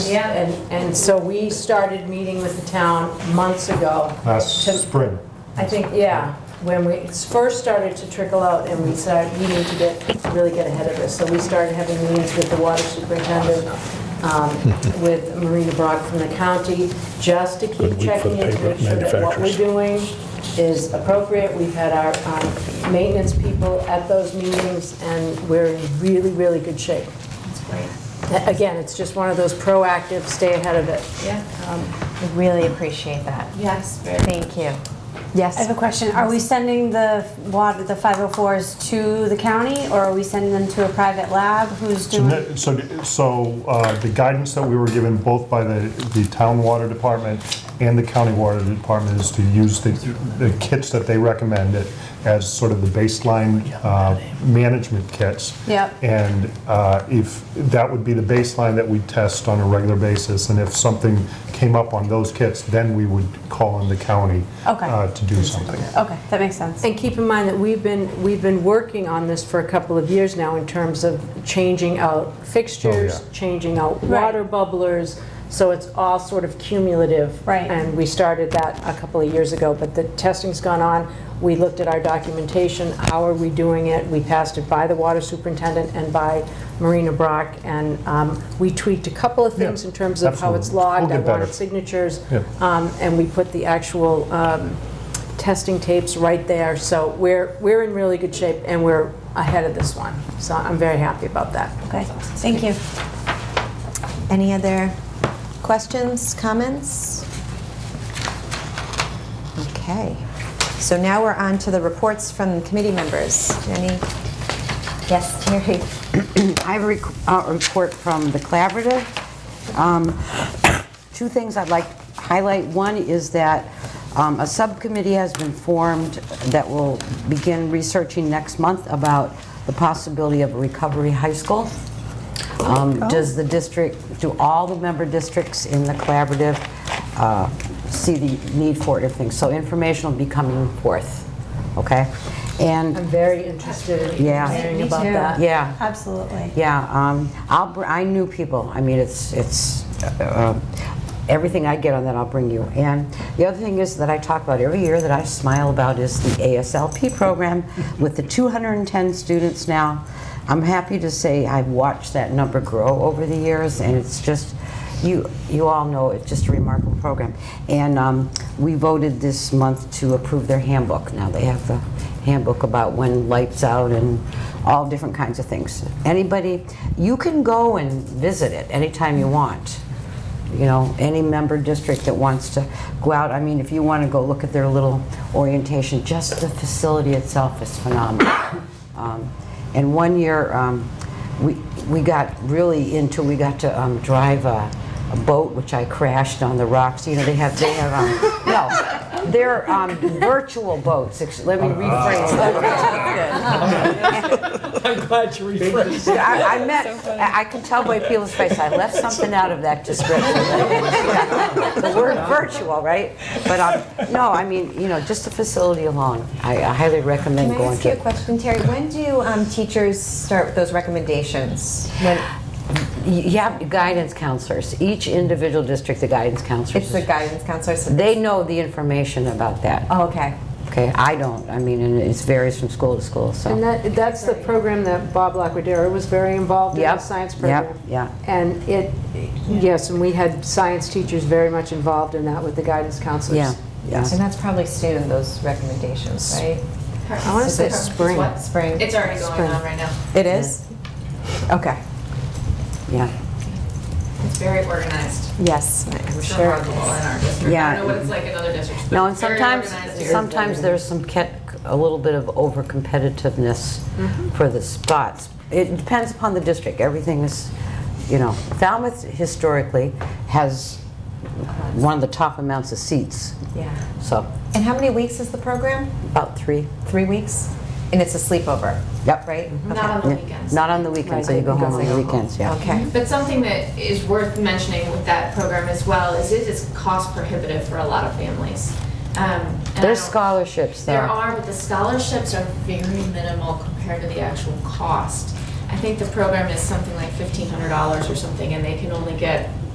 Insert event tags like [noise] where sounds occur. Yeah. And, and so we started meeting with the town months ago. last to- spring. I think, yeah, when we first started to trickle out and we said, we need to get, really get ahead of this. So we started having meetings with the water superintendent, [laughs] um, with Marina Brock from the county, just to Good keep week for checking the in to paper make sure that what we're manufacturers. doing is appropriate. We've had our um, maintenance people at those meetings and we're in really, really good shape. That's great. Again, it's just one of those proactive, stay ahead of it. Yeah. We really appreciate that. Yes, very. Thank you. I have Yes, a question. Are we sending the water, the 504s to the county or are we sending them to a private lab? Who's So, doing? no- so, so uh, the guidance that we were given both by the, the town water department and the county water department is to use the, the kits that they recommend it as sort of the baseline uh, management kits. Yep. And uh, if, that would be the baseline that we test on a regular basis, and if something came up on those kits, then we would call on the county Okay. uh, to do something. Okay, that makes sense. And keep in mind that we've been, we've been working on this for a couple of years now in terms of changing out fixtures, Oh, yeah. changing out Right. water bubblers, so it's all sort of cumulative. Right. And we started that a couple of years ago, but the testing's gone on. We looked at our documentation, how are we doing it? We passed it by the water superintendent and by Marina Brock, and um, we tweaked a couple of Yeah, things in terms of how it's absolutely. We'll logged. I get better. wanted signatures. Yeah. Um, And we put the actual um, testing tapes right there, so we're, we're in really good shape, and we're ahead of this one. So I'm very happy about that. Okay, thank you. any other questions, comments? Okay, so now we're on to the reports from committee members. Any? Yes, Terry? [clears throat] I have a rec- uh, report from the collaborative. Um, [coughs] Two things I'd like to highlight. One is that um, a subcommittee has been formed that will begin researching next month about the possibility of a recovery high school. Um, Does the district, do all the member districts in the collaborative uh, see the need for it? if things- So information will be coming forth, okay? And I'm very interested in Yeah. hearing Me about too. that. yeah. Absolutely. Yeah, um, I'll, br- I knew people, I mean, it's, it's, uh, everything I get on that, I'll bring you. And the other thing is that I talk about every year that I smile about is the ASLP program with the 210 students now. I'm happy to say I've watched that number grow over the years, and it's just, you, you all know it's just a remarkable program. And um, we voted this month to approve their handbook. Now they have the handbook about when lights out and all different kinds of things. Anybody, you can go and visit it anytime you want. You know, any member district that wants to go out, I mean, if you want to go look at their little orientation, just the facility itself is phenomenal. Um, And one year, um, we we got really into, we got to um, drive a a boat, which I crashed on the rocks. You know, they have, they have, um, no, they're um, virtual boats. Ex- Let me rephrase [laughs] that. I I meant, I I can tell by people's face, I left something out of that [laughs] description. The word virtual, right? But, um, no, I mean, you know, just the facility alone, I I highly recommend Can I going ask you a to. question, Terry? When do um, teachers start with those recommendations? When, You have guidance counselors, each individual district, the guidance counselors. it's the guidance counselor, so They know the information about that. Oh, okay. Okay, I don't. I mean, and it varies from school to school, And so. that, that's the program that Bob Lacudere was very involved in, the Yep, science yep, program. yeah. And it, yes, and we had science teachers very much involved in that with the guidance counselors. Yeah, yeah. And that's probably soon, those recommendations, right? I want to say spring. What, spring? It's already going on right now. It is? Okay, Yeah, It's very organized. yes, I'm It's sure. remarkable in our district. I Yeah. don't know what it's like in other districts, No, but and it's very sometimes, organized here. sometimes there's some, cat- a little bit of over-competitiveness Mm-hmm. for the spots. It depends upon the district. Everything is, you know, Falmouth historically has one of the top amounts of seats. Yeah. So, And how many weeks is the program? about three. Three weeks? And it's a sleepover? Yep. Right? Not on the weekends. Not on the weekends, so you go home on the weekends, yeah. Okay. But something that is worth mentioning with that program as well is it is cost prohibitive for a lot of families. Um, and I There's don't- scholarships, though. There are, but the scholarships are very minimal compared to the actual cost. I think the program is something like fifteen hundred dollars or something, and they can only get